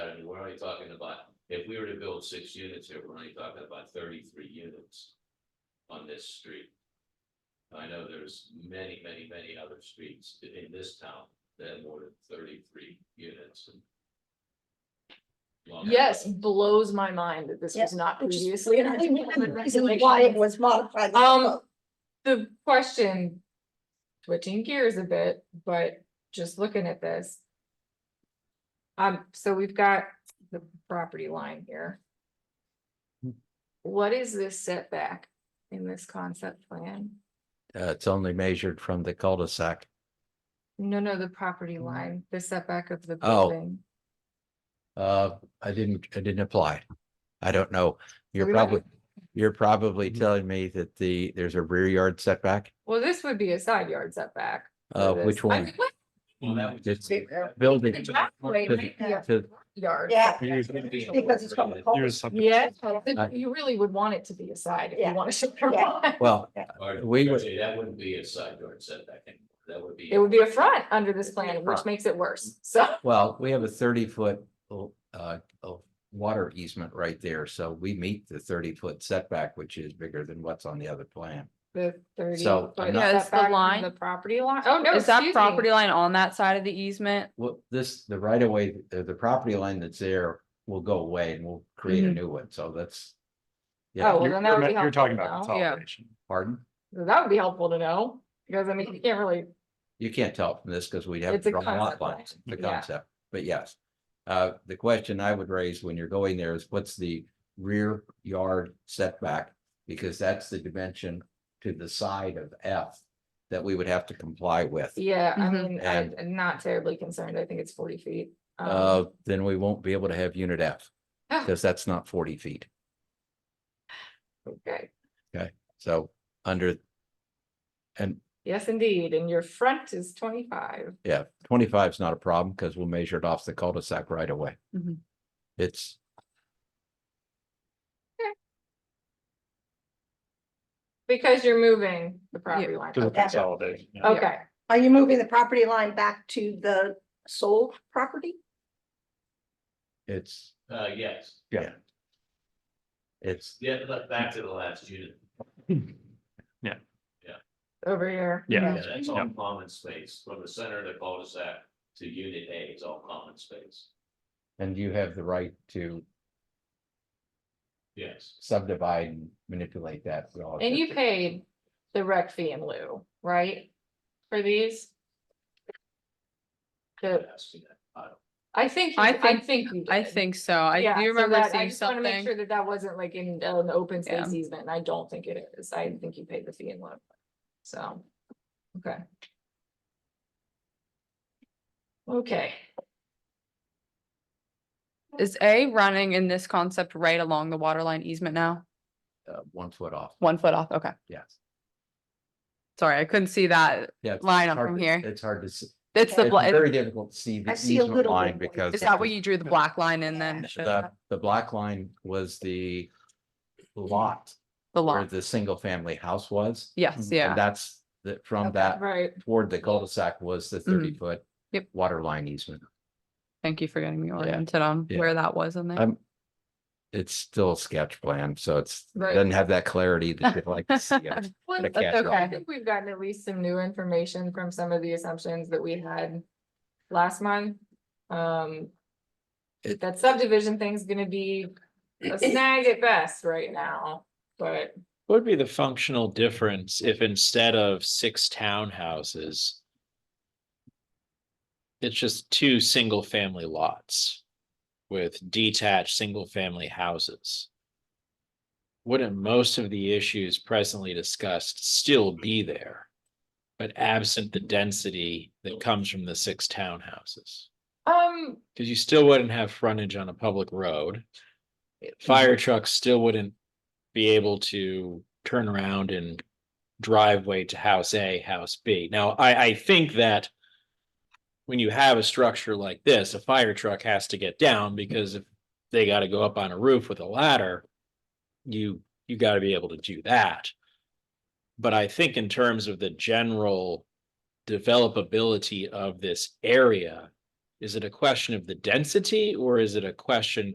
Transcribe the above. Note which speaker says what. Speaker 1: only talking about, if we were to build six units here, we're only talking about thirty-three units on this street. I know there's many, many, many other streets in this town that have more than thirty-three units. Long Island.
Speaker 2: Yes, blows my mind that this was
Speaker 3: Yeah,
Speaker 2: not
Speaker 3: Which is
Speaker 2: previously in our
Speaker 3: really one of the
Speaker 2: development
Speaker 3: reasons Why it
Speaker 2: regulations.
Speaker 3: was modified.
Speaker 2: Um, the question, switching gears a bit, but just looking at this. Um, so we've got the property line here.
Speaker 4: Hmm.
Speaker 2: What is this setback in this concept plan?
Speaker 4: Uh, it's only measured from the cul-de-sac.
Speaker 2: No, no, the property line, the setback of the
Speaker 4: Hmm. Oh.
Speaker 2: building.
Speaker 4: Uh, I didn't, I didn't apply. I don't know. You're
Speaker 2: we don't-
Speaker 4: probably, you're probably
Speaker 1: Mm-hmm.
Speaker 4: telling me that the, there's a rear yard setback.
Speaker 2: Well, this would be a side yard setback. for
Speaker 4: Uh,
Speaker 2: this.
Speaker 4: which
Speaker 2: I
Speaker 4: one?
Speaker 2: mean, what
Speaker 1: Well, that would just-
Speaker 3: Big area.
Speaker 4: Building.
Speaker 2: the driveway
Speaker 4: to-
Speaker 2: might be a
Speaker 4: to-
Speaker 2: Yard.
Speaker 3: Yeah.
Speaker 1: Because
Speaker 3: Because it's from the cul-
Speaker 5: There's something.
Speaker 2: Yeah,
Speaker 4: I-
Speaker 2: you really would want it to be a side if
Speaker 3: Yeah.
Speaker 2: you want to show your
Speaker 3: Yeah.
Speaker 2: line.
Speaker 4: Well,
Speaker 1: Or-
Speaker 4: We would-
Speaker 1: actually, That wouldn't be a side yard setback, anymore. that would be.
Speaker 2: It would be a front under this plan, which
Speaker 4: Front.
Speaker 2: makes it worse, so.
Speaker 4: well, we have a thirty-foot, uh, of water easement right there. So we meet the thirty-foot setback, which is bigger than what's on the other plan.
Speaker 2: The thirty.
Speaker 4: So, I'm
Speaker 2: foot
Speaker 4: not-
Speaker 6: Yeah, it's the
Speaker 2: setback from
Speaker 6: line.
Speaker 2: The property line, oh, no,
Speaker 6: Is that
Speaker 2: excuse
Speaker 6: property
Speaker 2: me.
Speaker 6: line on that side of the easement?
Speaker 4: Well, this, the right of way, the, the property line that's there will go away and we'll create a
Speaker 6: Mhm.
Speaker 4: new one. So that's.
Speaker 2: Mm-hmm. Oh,
Speaker 4: Yeah,
Speaker 2: well,
Speaker 5: You're
Speaker 2: then that would be
Speaker 5: you're talking
Speaker 2: helpful
Speaker 5: about
Speaker 2: to know.
Speaker 6: Yeah.
Speaker 5: consolidation.
Speaker 4: pardon?
Speaker 2: That would be helpful to know, because I mean, you can't really,
Speaker 4: You can't tell from this because we'd have
Speaker 2: It's a
Speaker 4: drawn lot
Speaker 2: concept, right?
Speaker 4: lines, the
Speaker 2: Yeah.
Speaker 4: concept, but yes. Uh, the question I would raise when you're going there is what's the rear yard setback? Because that's the dimension to the side of F that we would have to comply with.
Speaker 2: yeah, I
Speaker 6: Mhm.
Speaker 2: mean, I-
Speaker 4: And-
Speaker 2: I'm not terribly concerned, I think it's forty feet. Um,
Speaker 4: Uh, then we won't be able to have unit F
Speaker 2: Ah.
Speaker 4: because that's not forty feet.
Speaker 2: Okay,
Speaker 4: So under and
Speaker 2: yes, indeed, and your front is twenty-five,
Speaker 4: Yeah, twenty-five is not a problem because we'll measure it off the cul-de-sac right away.
Speaker 6: Mhm.
Speaker 4: It's.
Speaker 2: because you're moving the property line,
Speaker 5: To the
Speaker 2: okay,
Speaker 5: consolidation. yeah.
Speaker 2: okay,
Speaker 3: Are you moving the property line back to the sold property?
Speaker 4: It's,
Speaker 1: Uh, yes,
Speaker 4: yeah. It's,
Speaker 1: yeah, but back to the last unit,
Speaker 2: over here.
Speaker 5: Yeah.
Speaker 1: yeah, that's all
Speaker 5: Yeah.
Speaker 1: common space, from the center of the cul-de-sac to unit A, it's all common space,
Speaker 4: and you have the right to
Speaker 1: yes.
Speaker 4: subdivide and manipulate that. with all
Speaker 2: And
Speaker 4: the-
Speaker 2: you paid the rec fee in lieu, right? For these? The-
Speaker 1: Ask me that. I don't-
Speaker 2: I think, you-
Speaker 6: I
Speaker 2: I
Speaker 6: think-
Speaker 2: think. you
Speaker 6: I
Speaker 2: did.
Speaker 6: think so. I
Speaker 2: Yeah,
Speaker 6: do
Speaker 2: so
Speaker 6: remember
Speaker 2: that- I
Speaker 6: seeing
Speaker 2: just wanna make Sure
Speaker 6: something.
Speaker 2: that that wasn't like in an open
Speaker 6: Yeah.
Speaker 2: space easement, and I don't think it is. I think you paid the fee in lieu. So, okay. Okay,
Speaker 6: Is A running in this concept right along the water line easement now?
Speaker 4: Uh, one foot off,
Speaker 6: One foot off, okay.
Speaker 4: yes.
Speaker 6: Sorry, I couldn't see that.
Speaker 4: Yeah. it's-
Speaker 6: Line
Speaker 4: it's
Speaker 6: up
Speaker 4: hard
Speaker 6: from
Speaker 4: to-
Speaker 6: here.
Speaker 4: It's hard to, see.
Speaker 6: It's the,
Speaker 4: it's
Speaker 6: bla-
Speaker 4: very difficult to see the
Speaker 3: I see a
Speaker 4: easement
Speaker 3: little
Speaker 4: line
Speaker 3: bit more.
Speaker 4: because.
Speaker 6: is that where
Speaker 4: the-
Speaker 6: you drew the black line and then showed
Speaker 4: The,
Speaker 6: that?
Speaker 4: the black line was the lot
Speaker 6: the
Speaker 4: where
Speaker 6: lot?
Speaker 4: the single-family house was.
Speaker 6: Yes,
Speaker 4: And
Speaker 6: yeah.
Speaker 4: that's, that from that
Speaker 2: right.
Speaker 4: toward the cul-de-sac was the thirty foot.
Speaker 6: Yep.
Speaker 4: Water line easement.
Speaker 6: Thank you for getting me oriented on
Speaker 4: yeah.
Speaker 6: where that was in there.
Speaker 4: Um, it's still a sketch plan, so it's,
Speaker 2: Right.
Speaker 4: doesn't have that clarity that you'd like to see. it.
Speaker 2: Well,
Speaker 4: That's
Speaker 2: that's okay. I
Speaker 6: okay.
Speaker 2: think we've gotten at least some new information from some of the assumptions that we had last month. Um.
Speaker 4: It-
Speaker 2: That subdivision thing's gonna be a snag at best right now, but
Speaker 7: What would be the functional difference if instead of six townhouses? It's just two single family lots with detached single family houses. Wouldn't most of the issues presently discussed still be there? But absent the density that comes from the six townhouses?
Speaker 2: um,
Speaker 7: Cause you still wouldn't have frontage on a public road. Fire trucks still wouldn't be able to turn around and driveway to house A, house B. Now, I, I think that when you have a structure like this, a fire truck has to get down because if they gotta go up on a roof with a ladder, you, you gotta be able to do that. But I think in terms of the general developability of this area, Is it a question of the density or is it a question